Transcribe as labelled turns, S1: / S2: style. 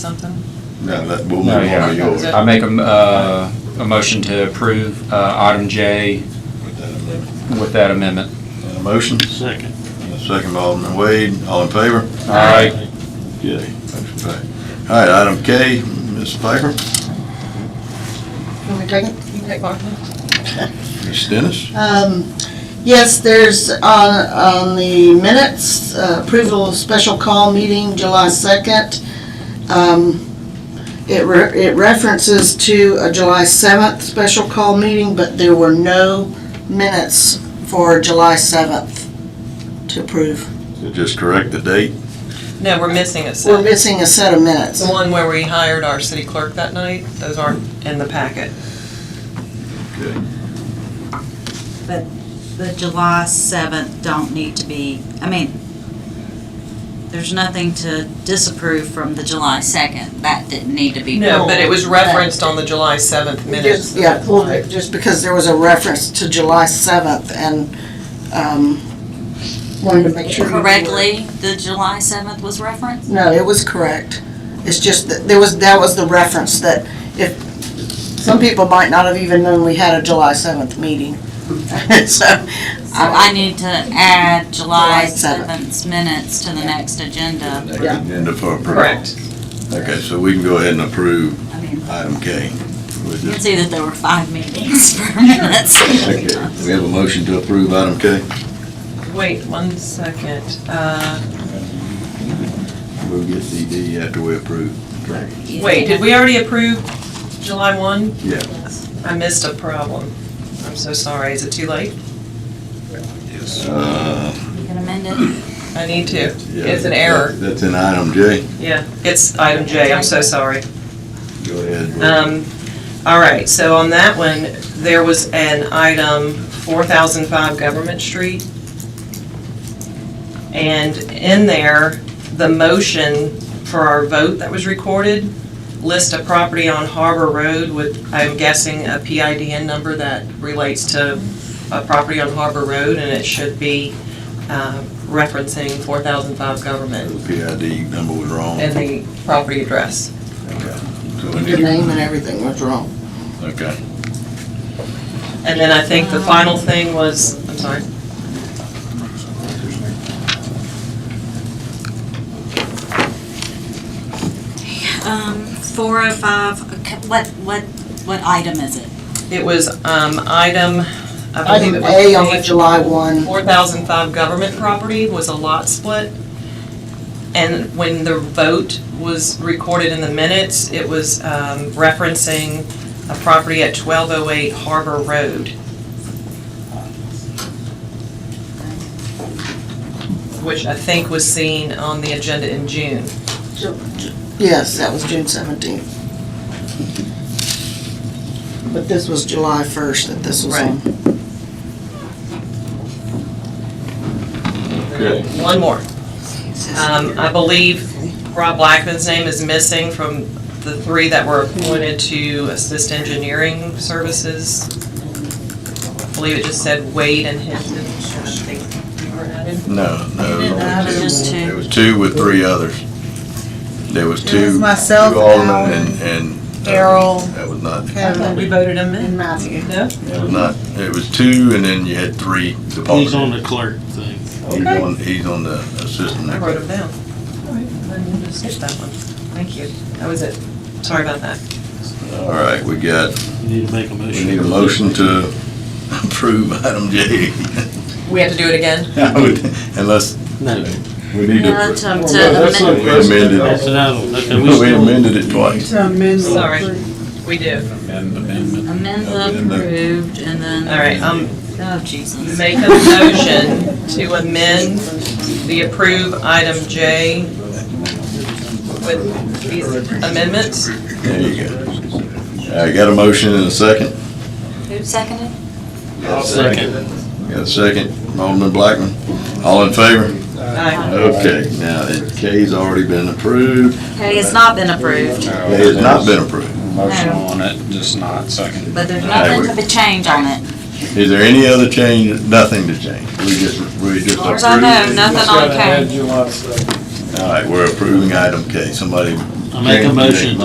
S1: something?
S2: No, that, we'll move
S3: No,
S2: on
S3: yeah.
S2: to yours.
S3: I make a, m- uh, a motion to approve, uh, item J
S2: With that amendment.
S3: with that amendment.
S2: And a motion? Second. And a second by Alderman Wade, all in favor?
S3: All right,
S2: Yay. Motion passed. All right, item K, Ms. Piper,
S4: Can we take it? You take mine.
S2: Ms. Dennis,
S4: Um, Yes, there's on, on the minutes, uh, approval of special call meeting July 2nd. Um, It re- it references to a July 7th special call meeting, but there were no minutes for July 7th to approve.
S2: just correct the date.
S1: No, we're missing it.
S4: We're missing a set of minutes.
S1: The one where we hired our city clerk that night, those aren't in the packet.
S2: Okay.
S5: the July 7th don't need to be, I mean, there's nothing to disapprove from the July 2nd. That didn't need to be pulled.
S1: No, but it was referenced on the July 7th minutes.
S4: Just- Yeah, well, just because there was a reference to July 7th and um, wanted to make sure. you were-
S5: Correctly, the July 7th was referenced?
S4: No, it was correct. It's just that there was, that was the reference that if, some people might not have even known we had a July 7th meeting. So,
S5: I, I need to add July
S4: July 7th.
S5: 7th's minutes to the next agenda.
S2: Next
S4: Yeah.
S2: agenda for approval.
S1: Correct.
S2: Okay, so we can go ahead and approve
S5: I mean,
S2: item K. We'll
S5: you can
S2: just-
S5: see that there were five meetings for minutes.
S2: Okay, We have a motion to approve item K.
S1: Wait one second. Uh,
S2: We'll get CD after we approve.
S1: Wait, did we already approve July 1?
S2: Yeah.
S1: I missed a problem. I'm so sorry. Is it too late?
S2: Uh,
S5: You can amend it.
S1: I need to.
S2: yeah,
S1: It's an error.
S2: That's in item J.
S1: Yeah, it's item J. I'm so sorry.
S2: Go ahead.
S1: Um, all right, so on that one, there was an item, four thousand five Government Street. And in there, the motion for our vote that was recorded, list a property on Harbor Road with, I'm guessing, a PIDN number that relates to a property on Harbor Road, and it should be, uh, referencing four thousand five Government
S2: The PID number was wrong.
S1: and the property address.
S2: Okay. So we
S4: the
S2: need
S4: name and everything was wrong.
S2: Okay.
S1: And then I think the final thing was, I'm sorry.
S5: Um, 405, okay, what, what, what item is it?
S1: It was um, item, I believe it
S4: Item
S1: was.
S4: A on the July 1.
S1: 4,005 government property was a lot split. And when the vote was recorded in the minutes, it was um, referencing a property at 1208 Harbor Road. Which I think was seen on the agenda in June.
S4: Yes, that was June 17th. But this was July 1st that this was on.
S2: Okay.
S1: One more. Um, I believe Rob Blackman's name is missing from the three that were appointed to assist engineering services. I believe it just said Wade and Hinton. I think you were added.
S2: No, no.
S5: You didn't have it,
S2: only
S5: just two.
S2: It was two with three others. There was two.
S6: It was myself,
S2: two Alderman
S6: Alan,
S2: and, and. that
S6: Errol.
S2: was- That was not,
S1: I thought we voted him Uh, in.
S4: Matthew.
S1: No?
S2: that was not, it was two and then you had three departments.
S7: He's on the clerk thing.
S2: He's
S1: Okay.
S2: on, he's on the assistant.
S1: I wrote him down. All right, then we'll just skip that one. Thank you. That was it. Sorry about that.
S2: All right, we got,
S7: You need to make a
S2: we
S7: motion.
S2: need a motion to approve item J.
S1: We have to do it again?
S2: I would- Unless,
S7: No,
S2: we need to.
S5: No,
S2: approve.
S5: to- to
S8: Well, that's
S5: amend-
S8: not-
S2: We amended
S7: that's an
S2: it,
S7: item. Okay, we
S2: we
S7: still,
S2: amended it twice.
S6: To amend the
S1: Sorry.
S6: approval.
S1: We do.
S5: Amend the
S2: Amend the-
S5: approved and then.
S1: All right, um,
S5: Oh, Jesus.
S1: Make a motion to amend the approved item J with these amendments.
S2: There you go. I got a motion and a second.
S5: Who seconded?
S7: I'll second.
S2: Got a second, Alderman Blackman. All in favor?
S1: Aye.
S2: Okay, now, it- K's already been approved.
S5: Okay, it's not been approved,
S2: It has not been approved.
S3: motion on it, just not second.
S5: but there's
S2: Aye,
S5: nothing
S2: we-
S5: to be changed on it.
S2: Is there any other change? Nothing to change. We just, we just approved.
S5: As far as I know,
S2: it.
S5: nothing on K.
S2: All right, we're approving item K. Somebody
S7: I make a motion